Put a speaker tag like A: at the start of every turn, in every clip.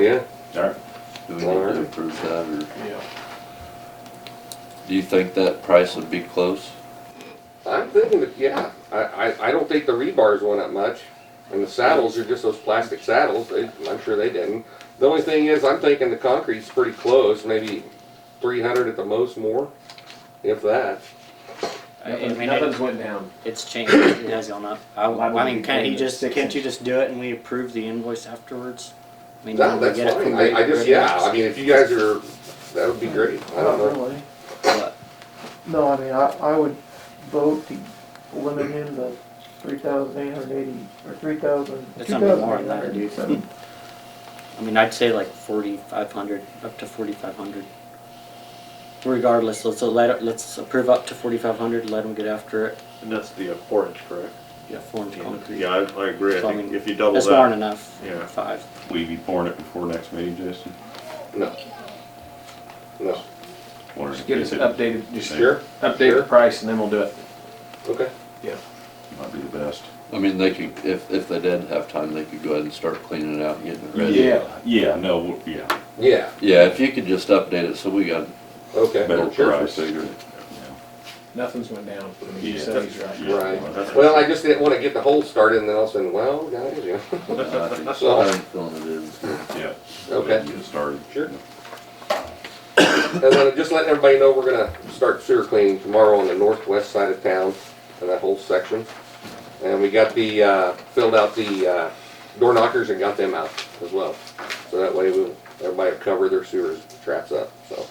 A: Yeah,
B: All right. Do we need to approve that, or
C: Yeah.
B: do you think that price would be close?
A: I'm thinking, that- yeah, I, I, I don't think the rebars went up much. And the saddles are just those plastic saddles, they, I'm sure they didn't. The only thing is, I'm thinking the concrete's pretty close, maybe three hundred at the most more, if that.
D: I I mean,
C: Nothing's
D: it-
C: went down.
D: it's changed, it has gone up. I,
C: Why would
D: I mean,
C: we
D: can't
C: pay
D: he
C: the
D: just,
C: six
D: can't you
C: inch?
D: just do it and we approve the invoice afterwards? I mean,
A: No,
D: when we
A: that's
D: get it
A: fine,
D: from
A: I, I
D: Red-
A: just,
D: Red
A: yeah,
D: Rocks,
A: I mean, if you guys are, that would be great, I don't know.
E: really.
D: but
E: No, I mean, I, I would vote to limit him to three thousand eight hundred eighty, or three thousand, two
D: It's gonna be
E: thousand
D: more
E: eight
D: than that.
E: hundred eighty-seven.
D: I mean, I'd say like forty-five hundred, up to forty-five hundred. Regardless, let's, let, it- let's approve up to forty-five hundred, let them get after it,
F: And that's the forage, correct?
D: yeah, four inch concrete.
F: Yeah, I, I agree, I
D: So, I
F: think
D: mean,
F: if you double
D: That's more
F: that,
D: than enough,
F: Yeah.
D: five.
B: Will you be pouring it before next meeting, Jason?
A: No. No,
B: Or
C: Just get us
B: is it-
C: updated, just
A: sure,
C: update the price and then we'll do it.
A: okay.
G: Might be the best.
B: I mean, they could, if, if they did have time, they could go ahead and start cleaning it out and getting it ready.
G: Yeah, no, w- yeah.
A: Yeah,
B: Yeah, if you could just update it, so we got
A: okay,
B: better
G: Better
B: price.
G: price.
C: Nothing's went down. I mean, you
G: Yeah.
C: said he's right.
G: Yeah.
A: right.
F: That's-
A: Well, I just didn't wanna get the hole started and then all of a sudden, well, guys, you know,
B: I think so. I'm feeling it is.
G: Yeah.
A: okay.
G: Get started.
A: Sure. And then just letting everybody know, we're gonna start sewer cleaning tomorrow on the northwest side of town, in that whole section. And we got the, uh, filled out the, uh, door knockers and got them out as well. So that way we'll, everybody will cover their sewers traps up, so.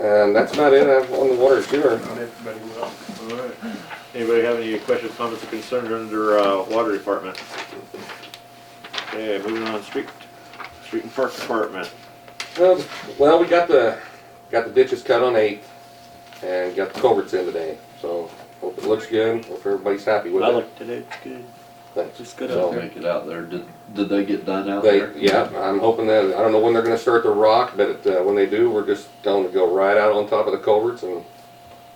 A: And that's about it uh, on the water and sewer.
C: Not everybody will.
F: Alright. Anybody have any questions, comments, or concerns under, uh, water department? Okay, moving on, street, street and park department.
A: Well, Um, well, we got the, got the ditches cut on eight and got the culverts in today, so hope it looks good, hope everybody's happy with
D: I
A: it.
D: looked at it, it's good,
A: Thanks.
D: it's good
B: They'll
D: out
B: make it out there. Did, did they get done out
A: They,
B: there?
A: yeah, I'm hoping that, I don't know when they're gonna start the rock, but uh, when they do, we're just telling them to go right out on top of the culverts and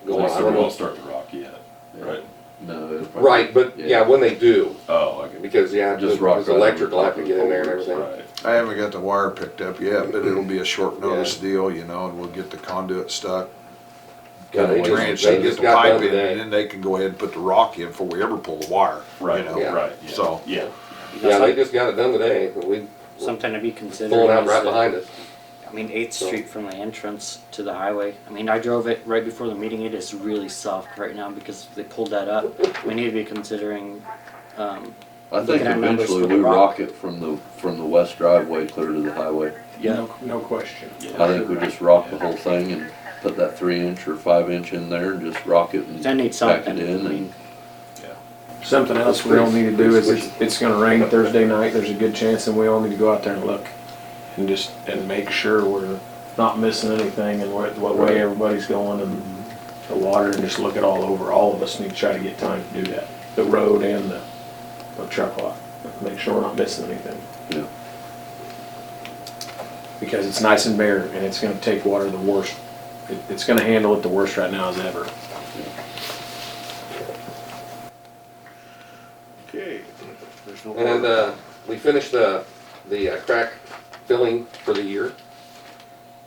A: go on. I
G: So
A: don't
G: we
A: know.
G: won't start the rock yet, right?
B: No. it'll probably-
A: Right, but yeah, when they do,
G: Oh, I get it.
A: because yeah,
B: Just
A: just
B: rock
A: because
B: right over
A: electric will
B: top
A: have to
B: of
A: get in
B: the
A: there and everything.
G: Right.
H: I haven't got the wire picked up yet, but it'll be a short notice deal, you know, and we'll get the conduit stuck.
A: Yeah, they
H: Kind of
A: just-
H: branch,
A: they
B: uh,
H: and
A: just
H: get the
A: got done
H: pipe in,
A: today.
H: and then they can go ahead and put the rock in before we ever pull the wire, you
G: Right,
A: Yeah.
H: know?
G: right, yeah.
H: So-
G: Yeah,
A: Yeah, they just got it done today, and we
D: something to be considered.
A: pulling out
D: is
A: right
D: that-
A: behind us.
D: I mean, Eighth
A: So-
D: Street from the entrance to the highway. I mean, I drove it right before the meeting. It is really soft right now because they pulled that up. We need to be considering, um,
B: I think
D: Looking at numbers
B: eventually
D: for the
B: we
D: rock.
B: rock it from the, from the west driveway clear to the highway.
D: yeah,
C: No, no question.
B: I think we just rock the whole thing and put that three inch or five inch in there and just rock it and
D: that needs
B: pack
D: something.
B: it in
D: I
B: and
D: mean,
C: Something else we all need to do is it's, it's gonna rain Thursday night. There's a good chance and we all need to go out there and look. And just, and make sure we're not missing anything and what, what way everybody's going and the water and just look it all over. All of us need to try to get time to do that. The road and the, the truck lot. Make sure we're not missing anything.
B: Yeah.
C: Because it's nice and bare and it's gonna take water the worst. It, it's gonna handle it the worst right now as ever.
F: Okay. There's no
A: And
F: water.
A: uh, we finished the, the uh, crack filling for the year.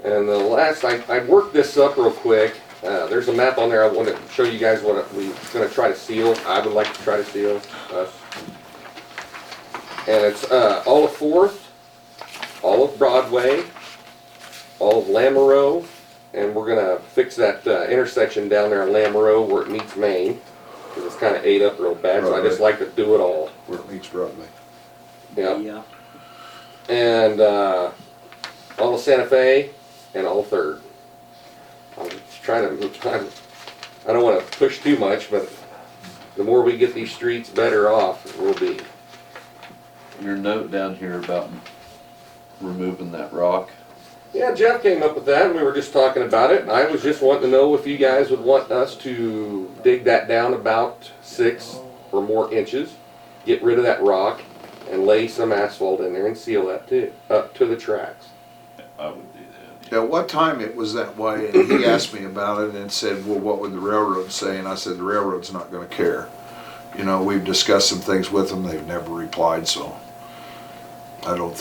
A: And the last, I, I worked this up real quick. Uh, There's a map on there. I want to show you guys what we're gonna try to seal. I would like to try to seal us. And it's uh, all of Fourth, all of Broadway, all of Lamoureux, and we're gonna fix that uh, intersection down there in Lamoureux where it meets Main. Because it's kind of ate up real bad, so I just like to do it all.
H: Where it meets Broadway.
A: Yeah
D: yeah,
A: and uh, all of Santa Fe and all of Third. I'm trying to, I'm, I don't want to push too much, but the more we get these streets, better off we'll be.
B: your note down here about removing that rock.
A: Yeah, Jeff came up with that, and we were just talking about it. I was just wanting to know if you guys would want us to dig that down about six or more inches, get rid of that rock, and lay some asphalt in there and seal that too, up to the tracks.
G: I would do that.
H: At what time it was that way, and he asked me about it and said, well, what would the railroad say? And I said, the railroad's not gonna care. You know, we've discussed some things with them, they've never replied, so. I don't think